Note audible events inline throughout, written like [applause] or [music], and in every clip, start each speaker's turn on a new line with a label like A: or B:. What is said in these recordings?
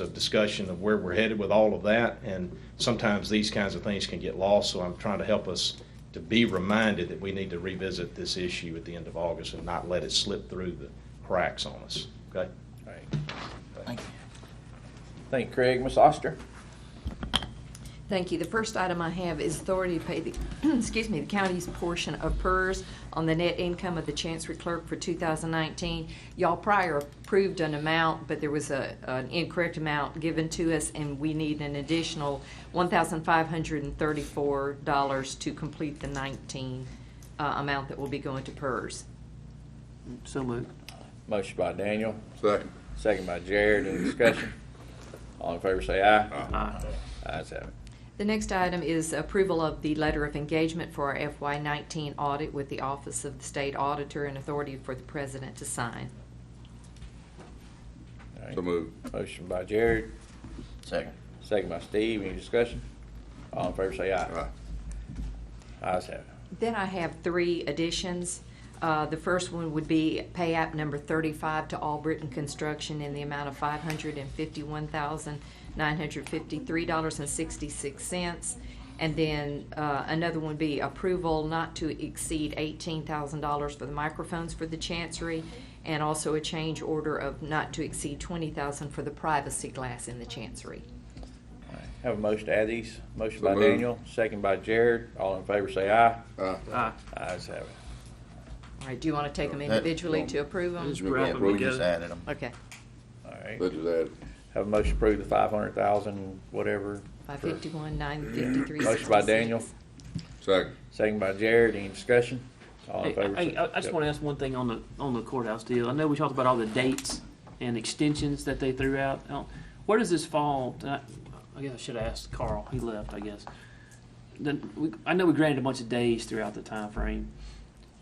A: of discussion of where we're headed with all of that, and sometimes these kinds of things can get lost, so I'm trying to help us to be reminded that we need to revisit this issue at the end of August and not let it slip through the cracks on us, okay?
B: All right.
C: Thank you.
B: Thank you, Craig. Ms. Oster?
D: Thank you. The first item I have is authority to pay the, [clears throat] excuse me, the county's portion of PERS on the net income of the chancery clerk for 2019. Y'all prior approved an amount, but there was a, an incorrect amount given to us, and we need an additional $1,534 to complete the 19 uh, amount that will be going to PERS.
C: So moved.
B: Motion by Daniel,
E: Second.
B: second by Jared. Any discussion? All in favor say aye.
C: Aye.
B: Ayes have it.
D: The next item is approval of the letter of engagement for our FY19 audit with the Office of the State Auditor and authority for the president to sign.
B: All right.
E: So moved.
B: Motion by Jared,
C: Second.
B: second by Steve. Any discussion? All in favor say aye.
E: Aye.
B: Ayes have it.
D: Then I have three additions. Uh, The first one would be pay app number 35 to All Britain Construction in the amount of $551,953.66. And then uh, another one would be approval not to exceed $18,000 for the microphones for the Chancery, and also a change order of not to exceed $20,000 for the privacy glass in the Chancery.
B: All right. Have a motion to add these. Motion
E: So
B: by
E: moved.
B: Daniel, second by Jared. All in favor say aye.
E: Aye.
C: Aye.
B: Ayes have it.
D: All right, do you want to take them individually to approve them?
C: Just wrap them
E: Approve.
C: together. them.
D: Okay,
B: All right.
E: That is added.
B: Have a motion to approve the five hundred thousand, whatever. for-
D: 551, 953.
B: Motion by Daniel,
E: Second.
B: second by Jared. Any discussion? All in
F: Hey,
B: favor say
F: hey, I I just want to ask one thing on the, on the courthouse deal. I know we talked about all the dates and extensions that they threw out. I don't- Where does this fall? I I guess I should have asked Carl. He left, I guess. Then, we- I know we granted a bunch of days throughout the time frame.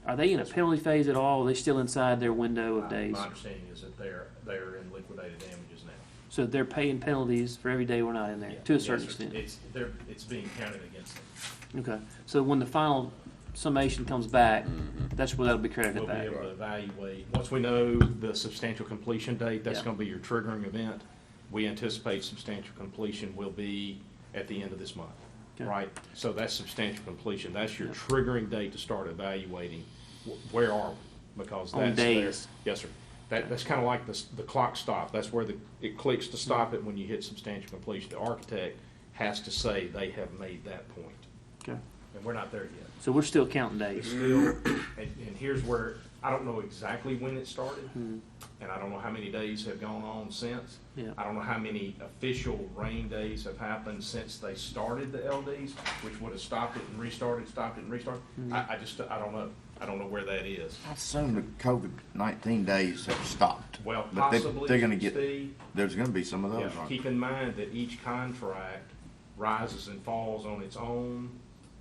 F: Are they in a penalty phase at all? Are they still inside their window of days?
G: My understanding is that they're, they're in liquidated damages now.
F: So they're paying penalties for every day we're not in there, to a certain
G: Yes,
F: extent?
G: It's, they're, it's being counted against them.
F: Okay, so when the final summation comes back,
B: Mm-hmm.
F: that's where that'll be credited
G: We'll be
F: back?
G: able to evaluate, once we know the substantial completion date, that's
F: Yeah.
G: gonna be your triggering event. We anticipate substantial completion will be at the end of this month,
F: Okay.
G: right? So that's substantial completion, that's your
F: Yeah.
G: triggering date to start evaluating, wh- where are we? Because
F: On
G: that's there.
F: days.
G: Yes, sir. That, that's kinda like the, s- the clock stop, that's where the, it clicks to stop it when you hit substantial completion. The architect has to say they have made that point,
F: Okay,
G: and we're not there yet.
F: so we're still counting
G: It's
F: days?
G: still, and, and here's where, I don't know exactly when it started, and I don't know how many days have gone on since.
F: Yeah.
G: I don't know how many official rain days have happened since they started the LDs, which would have stopped it and restarted, stopped it and restarted. I, I just, I don't know. I don't know where that is.
H: I assume the COVID nineteen days have stopped.
G: Well,
H: But they-
G: possibly,
H: They're gonna get,
G: Steve,
H: there's gonna be some of
G: Yeah,
H: those, aren't
G: keep in mind that each contract rises and falls on its own,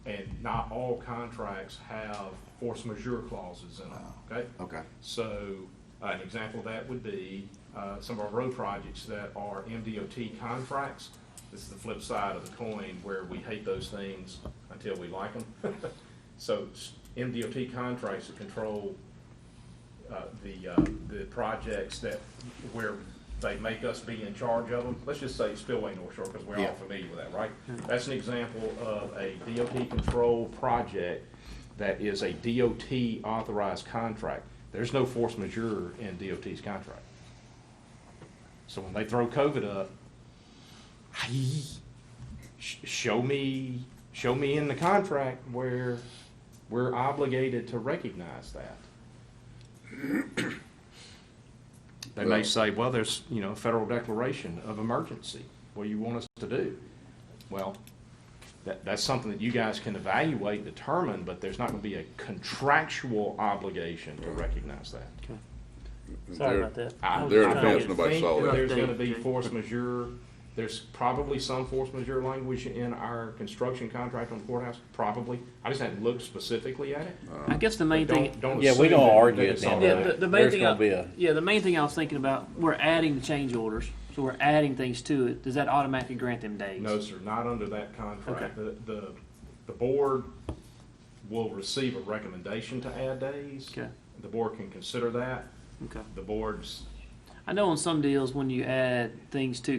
G: and not all contracts have force majeure clauses in them, okay?
H: Okay.
G: So, uh, an example of that would be, uh, some of our road projects that are MDOT contracts. This is the flip side of the coin where we hate those things until we like them. [laughs] So, s- MDOT contracts that control uh, the, uh, the projects that, where they make us be in charge of them, let's just say Spillway North Shore, because we're all
H: Yeah.
G: familiar with that, right? That's an example of a DOT control project that is a DOT authorized contract. There's no force majeure in DOT's contract. So when they throw COVID up, sh- show me, show me in the contract where we're obligated to recognize that. They may
E: Well-
G: say, well, there's, you know, a federal declaration of emergency. What do you want us to do? Well, that, that's something that you guys can evaluate, determine, but there's not gonna be a contractual obligation to recognize that.
F: Sorry
E: There-
F: about that.
B: ah,
G: I-
F: I
E: There
F: was
E: in
F: trying to
E: defense,
F: get-
E: nobody
G: think
E: saw
G: that
E: that.
G: There's gonna be force majeure, there's probably some force majeure language in our construction contract on the courthouse, probably. I just hadn't looked specifically at it.
F: I guess the main
G: But
F: thing,
G: don't, don't
B: Yeah, we
G: assume
B: don't
G: that-
B: argue
G: that
B: at
G: it's
B: the end
G: all
B: of
F: yeah,
G: right.
F: the, the main
B: There's
F: thing,
B: gonna be
F: I-
B: a-
F: yeah, the main thing I was thinking about, we're adding the change orders, so we're adding things to it. Does that automatically grant them days?
G: No, sir, not under that contract.
F: Okay.
G: The, the, the board will receive a recommendation to add days.
F: Okay.
G: The board can consider that.
F: Okay.
G: The board's
F: I know on some deals, when you add things to